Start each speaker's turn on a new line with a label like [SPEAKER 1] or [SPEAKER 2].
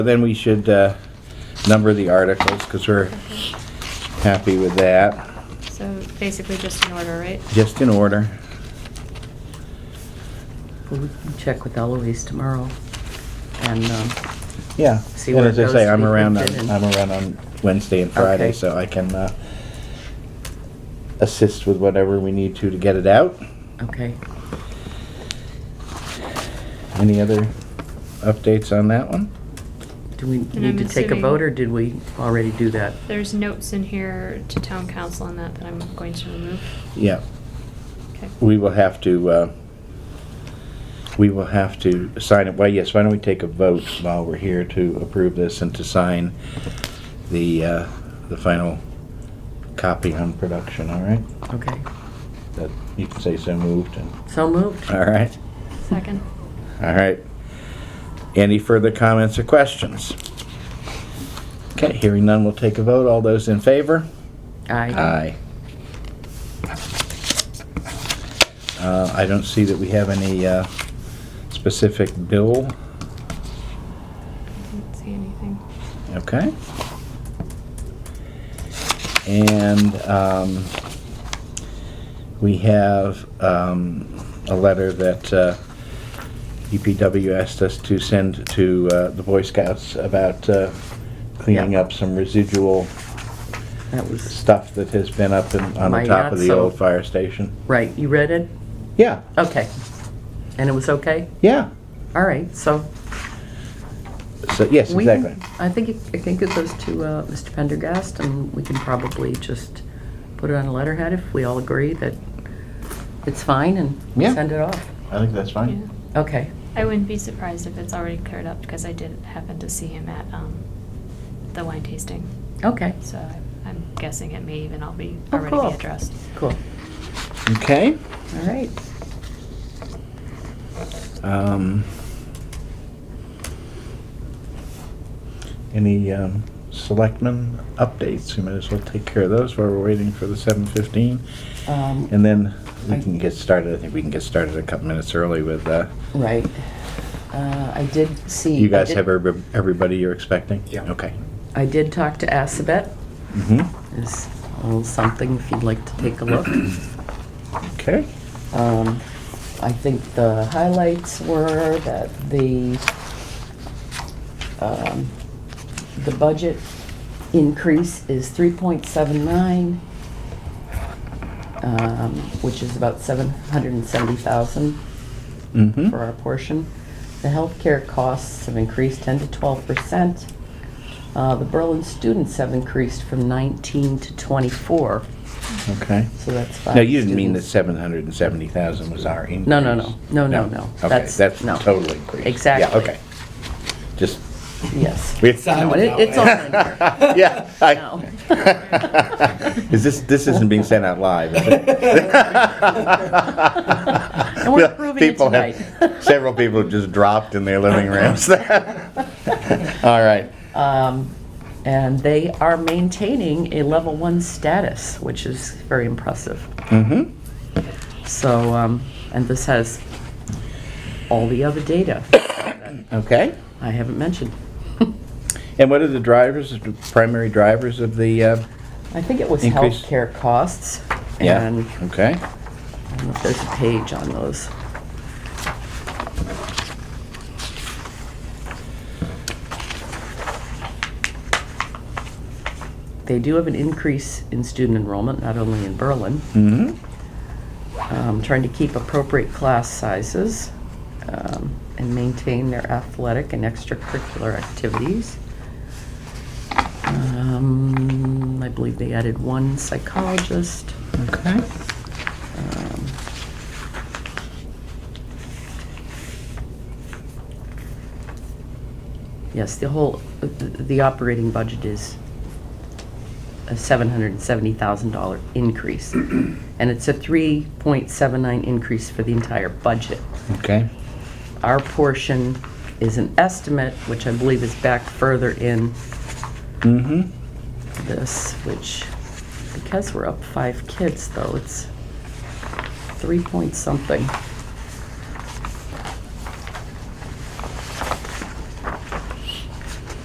[SPEAKER 1] Then we should uh, number the articles, because we're happy with that,
[SPEAKER 2] So basically just in order, right?
[SPEAKER 1] just in order.
[SPEAKER 3] Well, we can check with Eloise tomorrow and, um,
[SPEAKER 1] Yeah.
[SPEAKER 3] See
[SPEAKER 1] And
[SPEAKER 3] where
[SPEAKER 1] as
[SPEAKER 3] it
[SPEAKER 1] I say,
[SPEAKER 3] goes,
[SPEAKER 1] I'm
[SPEAKER 3] we can
[SPEAKER 1] around,
[SPEAKER 3] fit
[SPEAKER 1] on-
[SPEAKER 3] in.
[SPEAKER 1] I'm around on Wednesday and Friday,
[SPEAKER 3] Okay.
[SPEAKER 1] so I can uh, assist with whatever we need to to get it out.
[SPEAKER 3] okay.
[SPEAKER 1] Any other updates on that one?
[SPEAKER 3] Do we
[SPEAKER 2] And
[SPEAKER 3] need
[SPEAKER 2] I'm
[SPEAKER 3] to take a
[SPEAKER 2] assuming-
[SPEAKER 3] vote or did we already do that?
[SPEAKER 2] There's notes in here to town council on that that I'm going to remove.
[SPEAKER 1] Yeah,
[SPEAKER 2] Okay.
[SPEAKER 1] we will have to, uh, we will have to sign it. Well, yes, why don't we take a vote while we're here to approve this and to sign the, uh, the final copy on production, all right?
[SPEAKER 3] Okay.
[SPEAKER 1] That, you can say so moved and,
[SPEAKER 3] So moved.
[SPEAKER 1] all right?
[SPEAKER 2] Second.
[SPEAKER 1] All right. Any further comments or questions? Okay, hearing none, we'll take a vote. All those in favor?
[SPEAKER 3] Aye.
[SPEAKER 1] Uh, I don't see that we have any uh, specific bill.
[SPEAKER 2] I didn't see anything.
[SPEAKER 1] Okay. And um, we have um, a letter that uh, EPW asked us to send to uh, the Boy Scouts about uh, cleaning
[SPEAKER 3] Yeah.
[SPEAKER 1] up some residual
[SPEAKER 3] That was,
[SPEAKER 1] stuff that has been up in- on the
[SPEAKER 3] My
[SPEAKER 1] top of the
[SPEAKER 3] Yatso.
[SPEAKER 1] old fire station.
[SPEAKER 3] right, you read it?
[SPEAKER 1] Yeah,
[SPEAKER 3] Okay. And it was okay?
[SPEAKER 1] yeah.
[SPEAKER 3] All right, so.
[SPEAKER 1] So, yes,
[SPEAKER 3] we can-
[SPEAKER 1] exactly.
[SPEAKER 3] I think, it- I think it goes to uh, Mr. Pendergast and we can probably just put it on a letterhead if we all agree that it's fine and
[SPEAKER 1] Yeah.
[SPEAKER 3] send it off.
[SPEAKER 1] I think that's
[SPEAKER 2] Yeah.
[SPEAKER 3] Okay.
[SPEAKER 2] I wouldn't be surprised if it's already cleared up because I did happen to see him at um, the wine tasting.
[SPEAKER 3] Okay.
[SPEAKER 2] So I- I'm guessing it may even all be
[SPEAKER 3] Oh,
[SPEAKER 2] already
[SPEAKER 3] cool.
[SPEAKER 2] be addressed.
[SPEAKER 3] Cool.
[SPEAKER 1] Okay.
[SPEAKER 3] All right.
[SPEAKER 1] Um, Any um, selectmen updates? We might as well take care of those while we're waiting for the 7:15.
[SPEAKER 3] Um,
[SPEAKER 1] And then we
[SPEAKER 3] I-
[SPEAKER 1] can get started, I think we can get started a couple minutes early with, uh,
[SPEAKER 3] Right. Uh, I did see.
[SPEAKER 1] you guys
[SPEAKER 3] I did-
[SPEAKER 1] have everyb- everybody you're expecting?
[SPEAKER 4] Yeah.
[SPEAKER 1] Okay.
[SPEAKER 3] I did talk to Assabet.
[SPEAKER 1] hmm
[SPEAKER 3] There's a little something if you'd like to take a look.
[SPEAKER 1] Okay.
[SPEAKER 3] Um, I think the highlights were that the, um, the budget increase is three point seven nine, um, which is about seven hundred and seventy thousand.
[SPEAKER 1] Mm-hmm.
[SPEAKER 3] for our portion. The healthcare costs have increased 10 to 12 percent. Uh, The Berlin students have increased from 19 to 24,
[SPEAKER 1] Okay.
[SPEAKER 3] so that's five.
[SPEAKER 1] No, you didn't mean that
[SPEAKER 3] students.
[SPEAKER 1] 770,000 was our increase?
[SPEAKER 3] No, no, no. No, no, no.
[SPEAKER 1] Okay,
[SPEAKER 3] That's-
[SPEAKER 1] that's
[SPEAKER 3] no.
[SPEAKER 1] the total increase. Yeah,
[SPEAKER 3] Exactly.
[SPEAKER 1] okay. Just,
[SPEAKER 3] Yes.
[SPEAKER 1] we
[SPEAKER 3] No,
[SPEAKER 4] Sounded
[SPEAKER 3] it-
[SPEAKER 4] that
[SPEAKER 3] It's all
[SPEAKER 4] way.
[SPEAKER 3] in there.
[SPEAKER 1] Yeah. I-
[SPEAKER 3] No.
[SPEAKER 1] Is this, this isn't being sent out live, is it?
[SPEAKER 3] And we're approving it
[SPEAKER 1] People have-
[SPEAKER 3] tonight.
[SPEAKER 1] Several people just dropped in their living rooms. All right.
[SPEAKER 3] Um, And they are maintaining a level one status, which is very impressive.
[SPEAKER 1] Mm-hmm.
[SPEAKER 3] So, um, and this has all the other data
[SPEAKER 1] Okay.
[SPEAKER 3] I haven't mentioned.
[SPEAKER 1] And what are the drivers, the primary drivers of the, uh,
[SPEAKER 3] I think it was
[SPEAKER 1] Increase.
[SPEAKER 3] healthcare costs
[SPEAKER 1] yeah?
[SPEAKER 3] and
[SPEAKER 1] Okay.
[SPEAKER 3] I don't know if there's a page on those. They do have an increase in student enrollment, not only in Berlin,
[SPEAKER 1] Mm-hmm.
[SPEAKER 3] um, trying to keep appropriate class sizes um, and maintain their athletic and extracurricular activities. Um, I believe they added one psychologist.
[SPEAKER 1] Okay.
[SPEAKER 3] Um, Yes, the whole, the- the operating budget is a $770,000 increase. And it's a 3.79 increase for the entire budget.
[SPEAKER 1] Okay.
[SPEAKER 3] Our portion is an estimate, which I believe is back further in
[SPEAKER 1] Mm-hmm.
[SPEAKER 3] this, which, because we're up five kids though, it's three point something.